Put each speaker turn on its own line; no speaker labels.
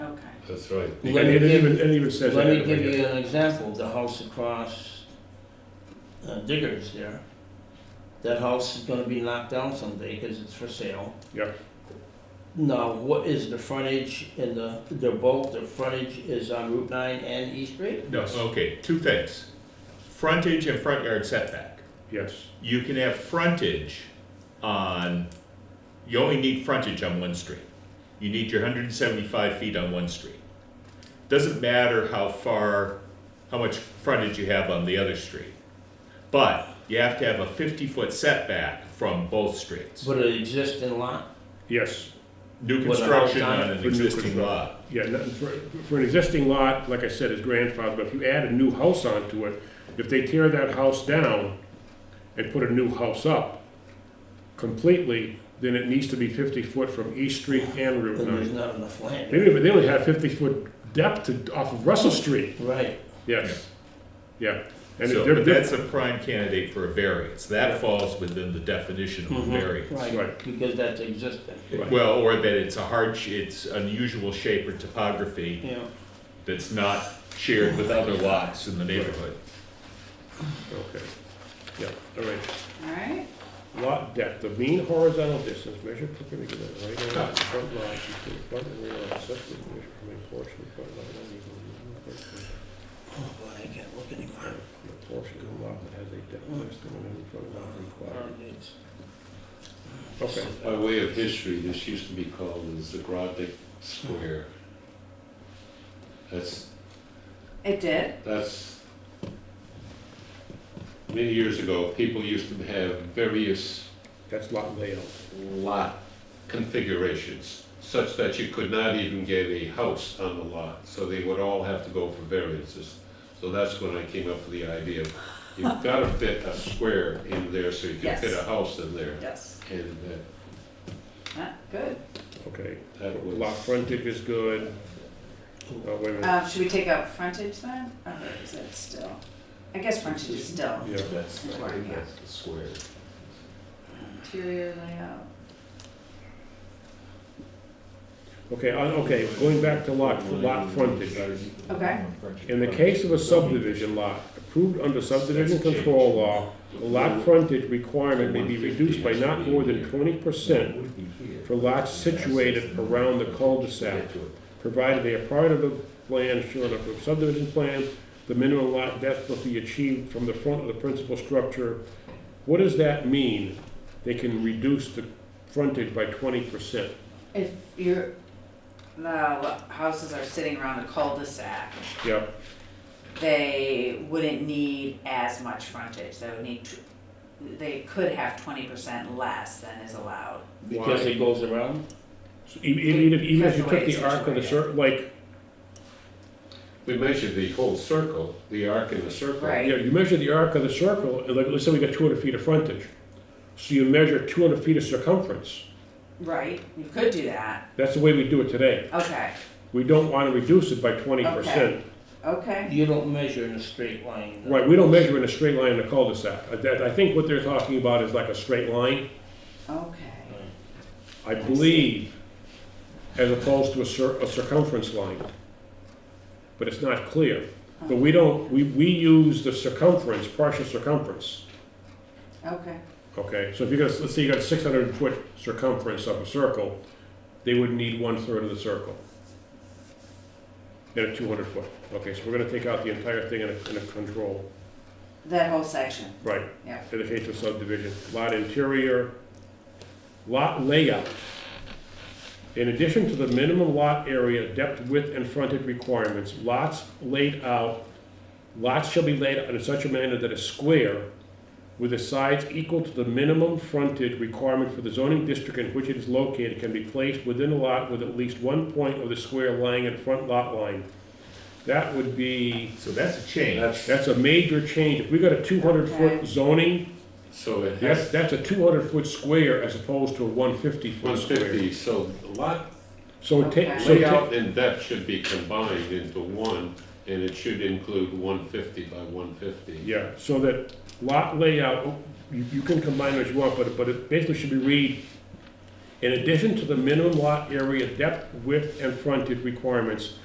That's right.
Let
And
me
it
give-
even, it even says that.
Let me
in the
give you an example, the house across uh, Diggers there. That house is gonna be knocked down someday because it's for sale.
Yep.
Now, what is the frontage in the, they're both, the frontage is on Route nine and East Street?
No, okay, two things. Frontage and front yard setback.
Yes,
You can have frontage on, you only need frontage on one street. You need your hundred and seventy-five feet on one street. Doesn't matter how far, how much frontage you have on the other street. But you have to have a fifty-foot setback from both streets.
But an existing lot?
yes,
New
With a house
construction
on it?
on
For
an
new
existing
construction.
lot.
yeah, no- for, for an existing lot, like I said, is grandfathered, but if you add a new house onto it, if they tear that house down and put a new house up completely, then it needs to be fifty foot from East Street and Route
Then there's
nine.
not enough
They
land.
don't even, they only have fifty foot depth to, off of Russell Street,
Right,
yes, yeah. And
So,
they're-
but
they're-
that's a prime candidate for a variance, that falls within the definition of a
Mm-hmm.
Mhm.
variance.
right,
Right.
because that's existing,
Right.
Well, or that it's a hardship, it's unusual shape or topography
yeah.
that's not shared with other lots in the neighborhood.
Okay, yeah, all right.
All right,
Lot depth, the mean horizontal distance measured perpendicular to the right angle of the front line between front and rear lot separated measured from a portion of front lot line equal to the front
Oh, boy, I can't look anymore.
line. The portion of the lot that has a depth less than one hundred front lot required.
It's-
Okay,
By way of history, this used to be called the Zagradnik Square. That's,
it did.
that's, many years ago, people used to have various
that's lot layout.
lot configurations, such that you could not even get a house on the lot, so they would all have to go for variances. So that's when I came up with the idea, of you've gotta fit a square in there so you can
Yes.
fit a house in there.
Yes.
And uh, that-
Ah, good.
Okay,
that was.
lot frontage is good. Oh, wait a minute,
Uh, should we take out frontage then? Or is it still? I guess frontage is still.
yeah,
That's, I think that's the square.
Interior layout.
okay, I- okay, going back to lot, lot frontage.
Okay.
In the case of a subdivision lot approved under subdivision control law, the lot frontage requirement may be reduced by not more than twenty percent for lots situated around the cul-de-sac, provided they are part of the plan shown up the subdivision plan, the minimum lot depth must be achieved from the front of the principal structure. What does that mean? They can reduce the frontage by twenty percent?
If your, the lo- houses are sitting around a cul-de-sac,
Yeah,
they wouldn't need as much frontage. They would need, tw- they could have twenty percent less than is allowed.
Because it goes around?
So e- e- even, if- even if you
Because the
took
way
the arc of the
it's
cir, like,
We measured the whole circle, the arc in the circle.
Right.
Yeah, you measure the arc of the circle, and like, let's say we got two hundred feet of frontage. So you measure two hundred feet of circumference.
Right, you could do that.
That's the way we do it today.
Okay,
We don't want to reduce it by twenty percent.
okay.
You don't measure in a straight line.
Right, we don't measure in a straight line in a cul-de-sac. I, that- I think what they're talking about is like a straight line,
Okay.
I believe, as opposed to a cir, a circumference line. But it's not clear. But we don't, we, we use the circumference, partial circumference,
Okay,
okay? So if you got, let's say you got a six hundred foot circumference of a circle, they would need one-third of the circle. And a two hundred foot. Okay, so we're gonna take out the entire thing in a, in a control.
that whole section,
Right.
Yeah.
In the case of subdivision, lot interior, lot layout. In addition to the minimum lot area, depth, width, and frontage requirements, lots laid out, lots shall be laid out in such a manner that a square with the sides equal to the minimum frontage requirement for the zoning district in which it is located can be placed within a lot with at least one point of the square lying in front lot line. That would be.
So that's a change.
That's,
That's a major change. If we got a two hundred foot
Okay.
zoning,
so it
that's,
has
that's a two hundred foot square as opposed to a one fifty
one
foot square.
fifty, so the lot
So ta-
Okay.
so ta-
layout and depth should be combined into one, and it should include one fifty by one fifty.
yeah, so that lot layout, you, you can combine as you want, but, it- but it basically should be read, in addition to the minimum lot area, depth, width, and frontage requirements,